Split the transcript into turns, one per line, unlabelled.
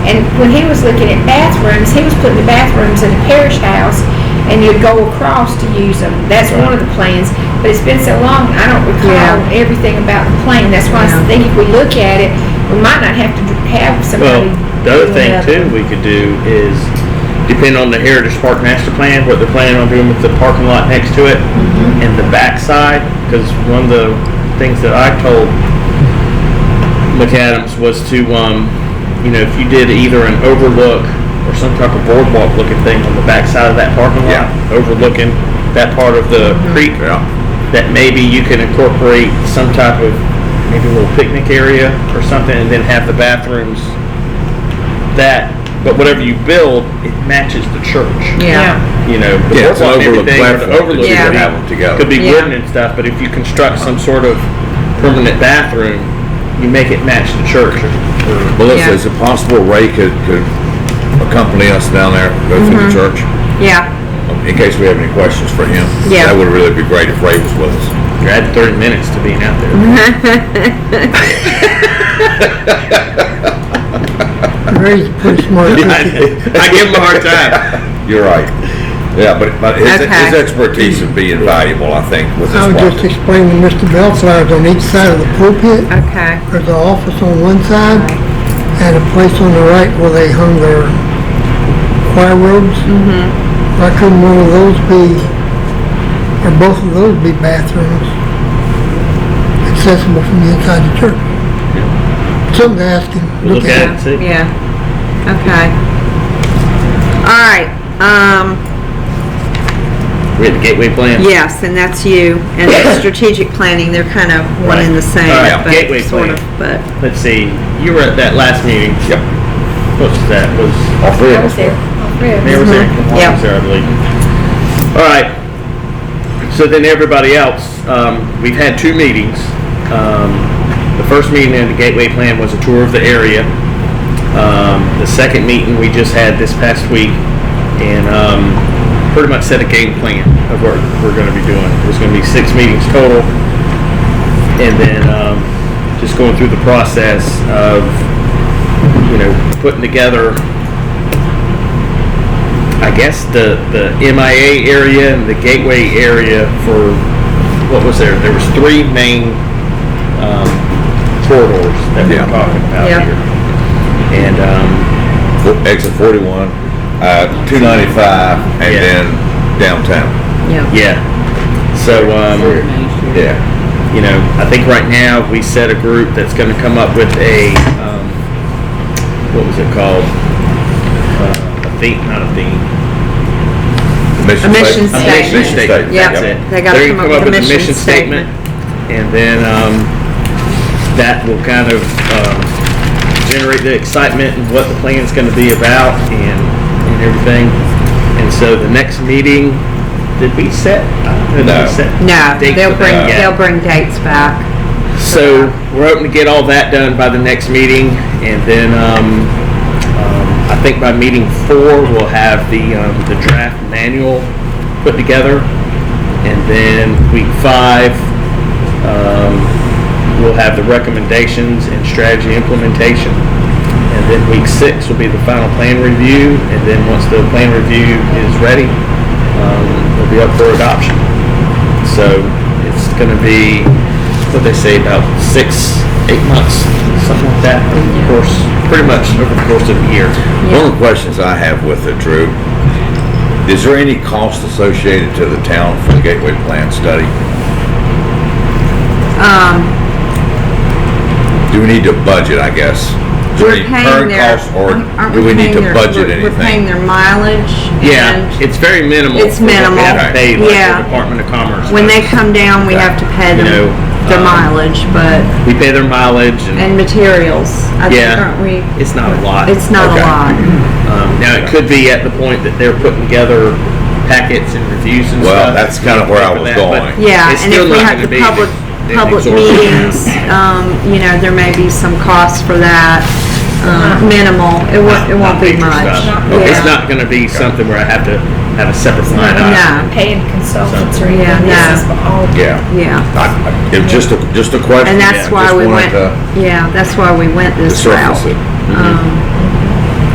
And when he was looking at bathrooms, he was putting the bathrooms in the parish house, and you'd go across to use them. That's one of the plans, but it's been so long, I don't recall
Yeah.
everything about the plan. That's why I
Yeah.
think if we look at it, we might not have to dr- have
Well,
somebody.
the other
doing
thing
that.
too we could do is, depend on the Heritage Park Master Plan, what they're planning on doing with the parking lot next to it and the backside, because one of the things that I told McAdams was to, um, you know, if you did either an overlook or some type of boardwalk looking thing on the backside of that parking lot, overlooking that part of the creek, that maybe you can incorporate some type of maybe a little picnic area or something, and then have the bathrooms that. But whatever you build, it matches the church.
Yeah,
You know, the
Yeah, it's an
boardwalk and
overlook
everything, or the
platform
overlook
that you
Yeah.
can
could
have
be-
them together.
could be
Yeah.
wooden and stuff, but if you construct some sort of permanent bathroom, you make it match the church. or- or-
Melissa,
Yeah.
is it possible Ray could, could accompany us down there, go through
Mm-hmm.
the church? Um,
yeah,
In case we have any questions for him?
Yeah.
That would really be great if Ray was with us.
You're adding thirty minutes to being out there.
Ray's pretty smart.
I give him a hard time.
You're right. Yeah, but, but his, his
Okay. Oh,
expertise would be invaluable, I think, with this
I was just
project.
explaining to Mr. Bellflower's on each side of the pulpit,
okay.
there's an office on one side and a place on the right where they hung their choir robes. Why couldn't one of those be, or both of those be bathrooms accessible from the inside the church? Something to ask him,
Look
look
at
at.
it, see?
Yeah, okay. All right, um,
We had the gateway plan.
yes, and that's you, and the strategic planning, they're kind of one and the same,
Right. Alright,
but
gateway
sort
plan.
of, but,
Let's see, you were at that last meeting.
Yep.
What was that? Was
All three
I
of
was
us.
there. Really?
Mayor was there?
Yeah.
Juan was there, I believe. All right. So then everybody else, um, we've had two meetings. Um, the first meeting in the Gateway Plan was a tour of the area. Um, the second meeting we just had this past week and, um, pretty much set a game plan of what we're gonna be doing. There's gonna be six meetings total. And then, um, just going through the process of, you know, putting together I guess the, the MIA area and the gateway area for, what was there? There was three main, um, corridors that we
Yeah.
we're talking about
Yeah.
here. And, um,
Fo- Exit forty-one, uh, two ninety-five, and
Yeah.
then downtown.
yeah.
yeah, so, um,
Yeah.
you know, I think right now we set a group that's gonna come up with a, um, what was it called? Uh, A theme, not a theme.
A mission
sta-
statement.
Mission statement.
Yeah.
That's it.
They gotta
They're
come
gonna
up with a mission statement.
And then, um, that will kind of, um, generate the excitement and what the plan's gonna be about and, and everything. And so the next meeting, did we set? I don't know if we
No.
set
No,
dates
they'll
for
bring,
that yet.
they'll bring dates back.
So we're hoping to get all that done by the next meeting, and then um, um, I think by meeting four we'll have the um, the draft manual put together, and then week five um, we'll have the recommendations and strategy implementation, and then week six will be the final plan review, and then once the plan review is ready, um, it'll be up for adoption. So it's going to be, what they say, about six, eight months, something like that, over the course, pretty much over the course of a year.
One of the questions I have with it, Drew, is there any cost associated to the town for the Gateway Plan study?
Um,
Do we need to budget, I guess? Is there
we're
any
paying
current
their.
costs, Or
aren't
do we need
paying
to
their-
budget
we're- We're paying
anything?
their mileage
Yeah,
and
it's very minimal.
It's
for what
minimal,
We have to pay like
yeah.
the Department of Commerce.
when they come down, we have to pay
You know,
them their
um,
mileage, but,
We pay their mileage and
and materials. I think,
Yeah.
Aren't we,
it's not a lot.
it's not a
Okay.
lot.
Um, Now, it could be at the point that they're putting together packets and reviews and stuff.
Well, that's kinda where I
for
was
that, but
going.
Yeah,
it's
and if
still
we
not
have
gonna
the
be an-
public,
an
public
exorbitant-
meetings, um, you know, there may be some cost for that, um, minimal, it won't, it won't be
major
much.
stuff.
Okay.
It's
Yeah.
not going to be something where I have to have a separate
not-
line item.
No,
Paying consultants or
Yeah,
anything,
no.
this is all.
Yeah.
yeah,
I- I- It was just a, just a question.
and that's
I
why
just
we
wanted
went,
to-
yeah, that's why we went
To
this route.
Mm-hmm.
surface it.
Um,